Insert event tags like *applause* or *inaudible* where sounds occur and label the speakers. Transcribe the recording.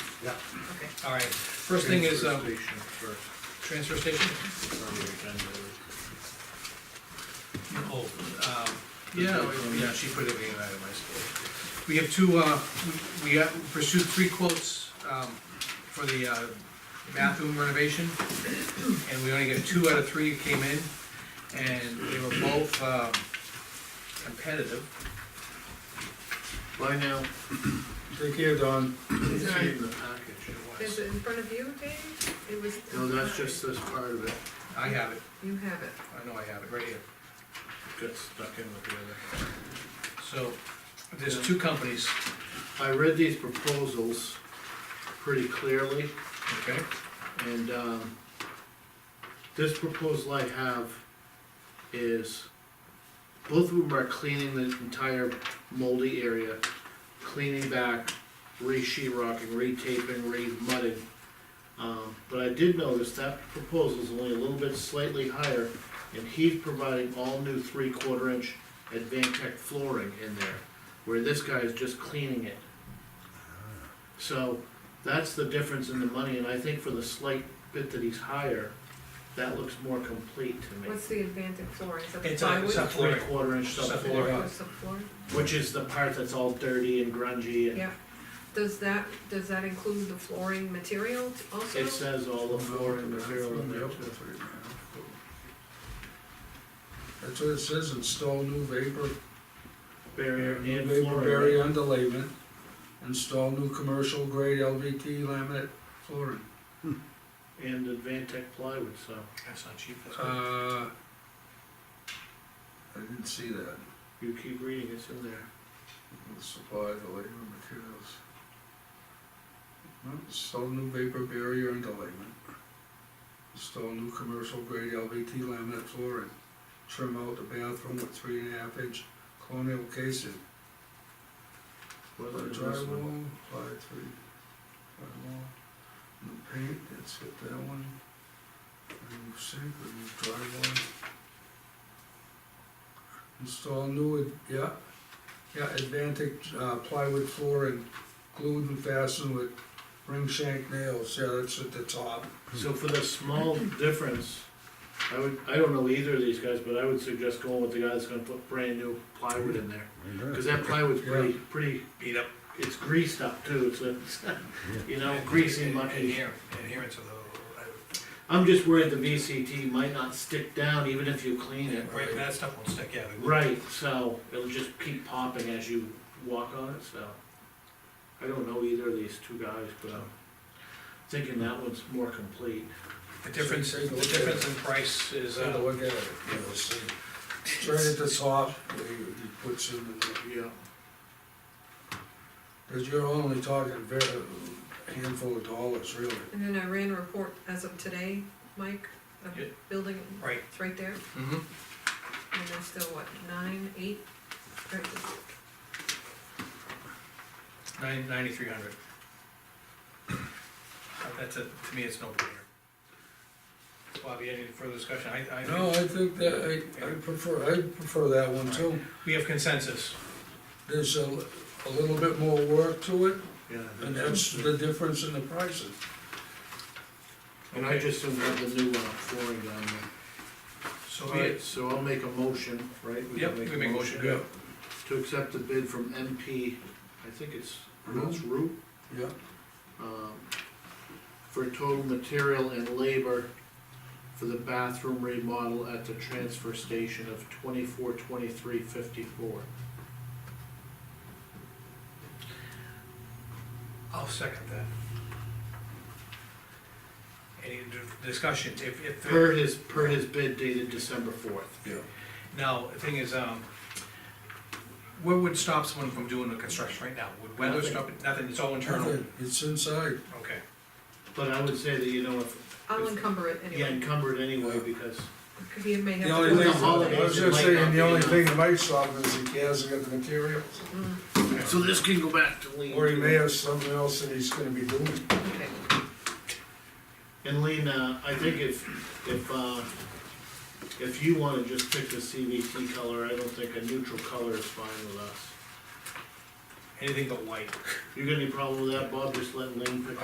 Speaker 1: Yeah.
Speaker 2: Okay.
Speaker 3: All right, first thing is,
Speaker 1: Transfer
Speaker 3: um,
Speaker 1: Station first,
Speaker 3: transfer station?
Speaker 1: it's on the agenda.
Speaker 3: Oh, um, yeah, we- yeah, she put everything in item, I suppose. We have two, uh, we we, uh, pursued three quotes, um, for the, uh, bathroom renovation, and we only got two out of three came in, and they were both, um, competitive.
Speaker 1: Bye now. Take care, Don.
Speaker 2: It's all right.
Speaker 1: in the package, it
Speaker 2: Is
Speaker 1: was.
Speaker 2: it in front of you, Dave? It was.
Speaker 1: No, that's just this part of it,
Speaker 3: I have it,
Speaker 2: You have it.
Speaker 3: I know I have it, right here.
Speaker 1: got stuck in with the other.
Speaker 3: So, there's two companies,
Speaker 1: I read these proposals pretty clearly,
Speaker 3: okay?
Speaker 1: and, um, this proposal I have is, both of them are cleaning the entire moldy area, cleaning back, re-sheetrocking, re-taping, re-mudding. Um, but I did notice that proposal's only a little bit slightly higher, and he's providing all new three-quarter inch Advantech flooring in there, where this guy is just cleaning it. So, that's the difference in the money, and I think for the slight bit that he's higher, that looks more complete to me.
Speaker 2: What's the Atlantic flooring? Is that
Speaker 3: It's a- it's a
Speaker 2: plywood?
Speaker 3: flooring.
Speaker 1: Three-quarter inch
Speaker 3: Subfloor.
Speaker 1: subfloor,
Speaker 2: Or subflooring?
Speaker 1: which is the part that's all dirty and grungy and
Speaker 2: Yeah. Does that, does that include the flooring material also?
Speaker 1: it says all the flooring material in there too.
Speaker 4: That's what it says, install new vapor,
Speaker 1: Barrier
Speaker 4: new
Speaker 1: and
Speaker 4: vapor
Speaker 1: flooring.
Speaker 4: barrier underlayment, install new commercial grade LVT laminate flooring.
Speaker 1: And Advantech plywood, so.
Speaker 3: That's not cheap, that's good.
Speaker 4: Uh, I didn't see that,
Speaker 1: You keep reading, it's in there.
Speaker 4: the supply, the labor, materials. No, Install new vapor barrier underlayment. Install new commercial grade LVT laminate flooring. Trim out the bathroom with three and a half inch colonial casing.
Speaker 1: What
Speaker 4: Apply
Speaker 1: is this one?
Speaker 4: drywall, apply three, drywall, new paint, that's it, that one. Remove sink, remove drywall. Install new, ad- yeah, yeah, Advantic uh, plywood flooring, glued and fastened with ring shank nails, yeah, that's at the top.
Speaker 1: So for the small difference, I would, I don't know either of these guys, but I would suggest going with the guy that's gonna put brand new plywood in there. Cause that plywood's pretty, pretty,
Speaker 3: Beat up.
Speaker 1: it's greased up too, it's a, *laughs* you know, greasy, mucky.
Speaker 3: Adhere- Adherence of the, uh,
Speaker 1: I'm just worried the VCT might not stick down even if you clean it.
Speaker 3: right, that stuff won't stick, yeah. we-
Speaker 1: Right, so it'll just keep popping as you walk on it, so. I don't know either of these two guys, but I'm thinking that one's more complete.
Speaker 3: The difference, the difference in price is,
Speaker 4: So
Speaker 3: uh,
Speaker 4: look at it, you know, see. Right at the top, where you, you put some in there.
Speaker 1: Yeah.
Speaker 4: Cause you're only talking very handful of dollars, really.
Speaker 2: And then I ran a report as of today, Mike, of
Speaker 3: Yeah.
Speaker 2: building,
Speaker 3: right.
Speaker 2: it's right there,
Speaker 3: Mm-hmm.
Speaker 2: and there's still what, nine, eight? Right,
Speaker 3: Nine, ninety-three hundred. That's a, to me, it's no brainer. Bobby, any further discussion? I, I.
Speaker 4: No, I think that, I, I prefer, I prefer that one too.
Speaker 3: We have consensus.
Speaker 4: There's a, a little bit more work to it,
Speaker 1: Yeah.
Speaker 4: and that's the difference in the prices.
Speaker 1: And I just don't have the new uh, flooring down there.
Speaker 3: So
Speaker 1: Alright,
Speaker 3: we,
Speaker 1: so I'll make a motion, right? can
Speaker 3: yep, we make a motion, good.
Speaker 1: To accept the bid from MP, I think it's pronounced Root,
Speaker 4: Yeah,
Speaker 1: um, for total material and labor for the bathroom remodel at the transfer station of twenty-four, twenty-three, fifty-four.
Speaker 3: I'll second that. Any d- discussion? If, if.
Speaker 1: Per his, per his bid dated December fourth.
Speaker 4: yeah.
Speaker 3: Now, the thing is, um, what would stop someone from doing the construction right now? Would weather
Speaker 4: Nothing.
Speaker 3: stop it? Nothing, it's all internal.
Speaker 4: Nothing, It's inside.
Speaker 3: Okay.
Speaker 1: But I would say that, you know, if,
Speaker 2: I'll encumber it
Speaker 1: yeah,
Speaker 2: anyway,
Speaker 1: encumbered anyway, because
Speaker 2: because you may have.
Speaker 4: The
Speaker 2: to
Speaker 4: only
Speaker 2: do
Speaker 4: thing,
Speaker 2: it.
Speaker 4: I was just saying, the only thing that might stop it is he hasn't got the materials,
Speaker 1: So this can go back to lean.
Speaker 4: or he may have something else that he's gonna be doing.
Speaker 2: Okay.
Speaker 1: And lean, uh, I think if, if, uh, if you wanna just pick the CVT color, I don't think a neutral color is fine with us.
Speaker 3: Anything but white.
Speaker 1: You got any problem with that, Bob? Just let lean pick